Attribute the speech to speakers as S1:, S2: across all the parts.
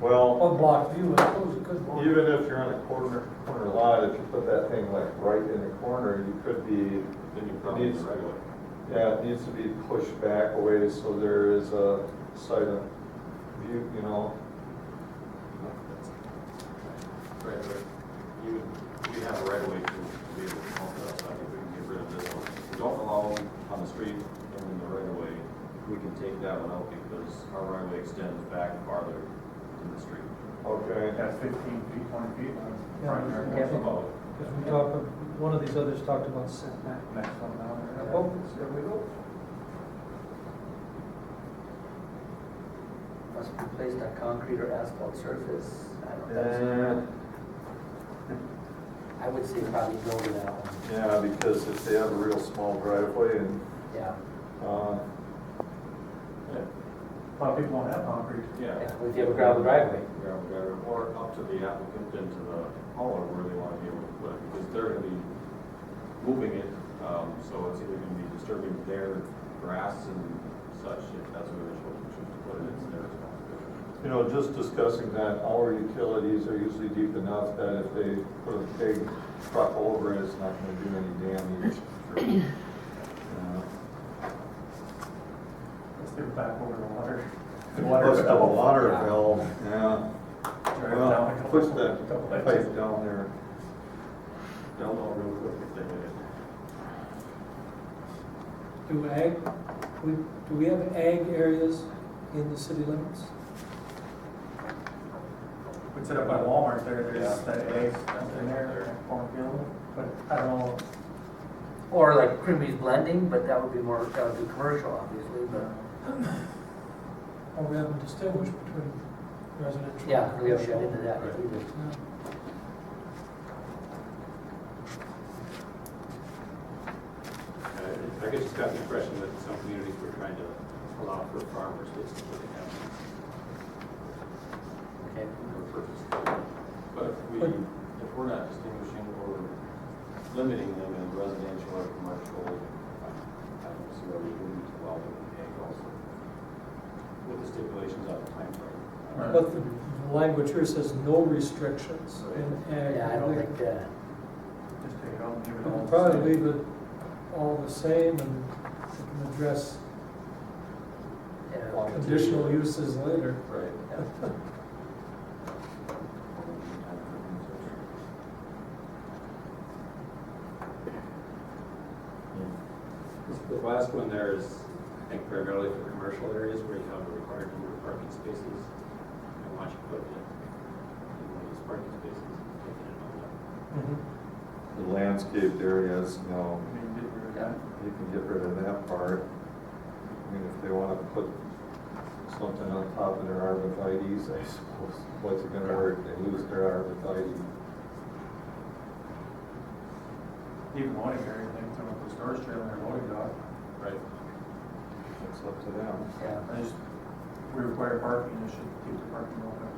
S1: Well,
S2: One Oh, block view, I suppose it could work.
S1: even if you're on a corner, corner lot, if you put that thing like right in the corner, you could be,
S3: Then you probably
S1: Needs-
S3: regulate.
S1: yeah, it needs to be pushed back away so there is a side of view, you know?
S3: Right, right. You, we have a right of way to be able to pump that outside, if we can get rid of this one. If we don't allow them on the street and in the right of way, we can take that one out because our right of way extends back farther than the street.
S1: Okay,
S4: That's fifteen feet, twenty feet, on the front yard,
S2: Yeah.
S4: that's
S3: That's
S4: the
S3: about it.
S2: Because we talked, one of these others talked about setback.
S4: next one down there.
S2: Oh, there we go.
S5: Must be placed on concrete or asphalt surface. I don't know.
S1: and,
S5: I would say probably go with that one.
S1: yeah, because if they have a real small driveway and,
S5: Yeah,
S1: uh,
S4: A lot of people don't have concrete.
S3: Yeah.
S5: Yeah, if you have a gravel driveway.
S3: Gravel driveway, or up to the applicant and to the hauler where they want to be able to put it, because they're gonna be moving it, um, so it's either gonna be disturbing their grass and such, if that's where they choose choose to put it, it's their responsibility.
S1: You know, just discussing that, our utilities are usually deep enough that if they put a big truck over it, it's not gonna do any damage. Uh,
S4: Let's get back over the water.
S1: Plus the
S4: valve.
S1: water valve, yeah,
S4: Drive it down a
S1: well,
S4: couple-
S1: push that
S4: couple inches.
S1: pipe down there.
S3: They'll know real quick if they did it.
S2: Do ag, we, do we have ag areas in the city limits?
S4: We set up by Walmart there, there's
S3: Yeah.
S4: that egg that's in there, cornfield, but I don't know,
S5: Or like Creamy's blending, but that would be more, that would be commercial, obviously, but
S2: Or we haven't distinguished between residential?
S5: yeah, we haven't got into that either.
S2: Yeah.
S3: Uh, I guess just got the impression that some communities were trying to allow for farmers basically to have
S5: Okay.
S3: their purpose. But if we, if we're not distinguishing or limiting them in residential or commercial, I don't see why we wouldn't allow them in ag also. With the stipulations on the timeframe.
S4: Right.
S2: But the language here says no restrictions in ag.
S5: Yeah, I don't think, uh,
S4: just take it out and give
S2: We
S4: it all.
S2: could probably leave it all the same and we can address
S5: yeah.
S2: conditional uses later.
S3: Right. The last one there is, I think primarily for commercial areas where you have a required number of parking spaces. I want you to put it in one of these parking spaces, taking it all up.
S5: Mm-hmm.
S1: The landscaped areas, you know,
S4: I mean, get rid of that.
S1: you can get rid of that part. I mean, if they wanna put something on top of their arborvitae's, I suppose, what's it gonna hurt, they lose their arborvitae.
S4: Even loading area, they can throw up the storage trailer and loading dock,
S3: Right.
S1: It's up to them.
S5: Yeah.
S4: I just, we require parking, they should keep the parking open.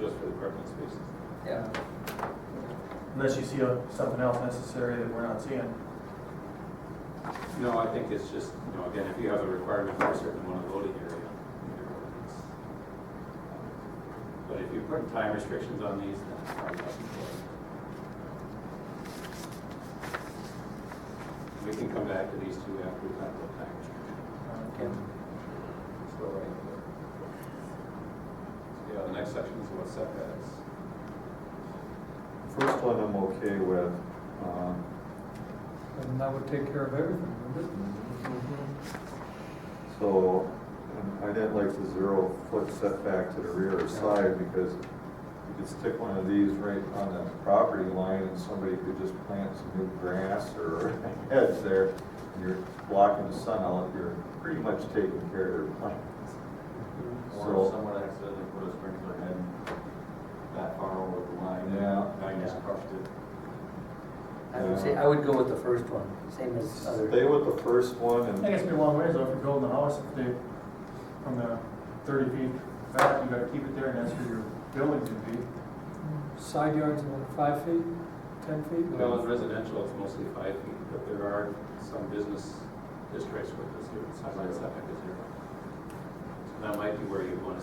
S3: Just for the parking spaces.
S5: Yeah.
S4: Unless you see uh, something else necessary that we're not seeing.
S3: No, I think it's just, you know, again, if you have a requirement for a certain amount of loading area, in your ordinance. But if you put time restrictions on these, then it's probably not important. We can come back to these two after we've had the time restriction.
S5: Okay.
S3: So, right. So, Yeah, the next section is about setbacks.
S1: First one I'm okay with, um,
S2: And that would take care of everything, wouldn't it?
S1: so and I didn't like the zero foot setback to the rear or side because you could stick one of these right on the property line and somebody could just plant some new grass or hedge there. and You're blocking the sun out, you're pretty much taking care of your plants.
S3: Or if
S1: So,
S3: someone accidentally put a sprinkler head that far over the line.
S1: Yeah.
S3: Now you just crushed it.
S5: I would say, I would go with the first one, same as other.
S1: stay with the first one
S4: I think
S1: and,
S4: it's been a long ways though, if you're building a house, if they, from the thirty feet back, you gotta keep it there and that's where your building's gonna be.
S2: Side yards, what, five feet, ten feet?
S3: Well, in residential, it's mostly five feet, but there are some business districts where the zero, side setback is zero. So that might be where you want to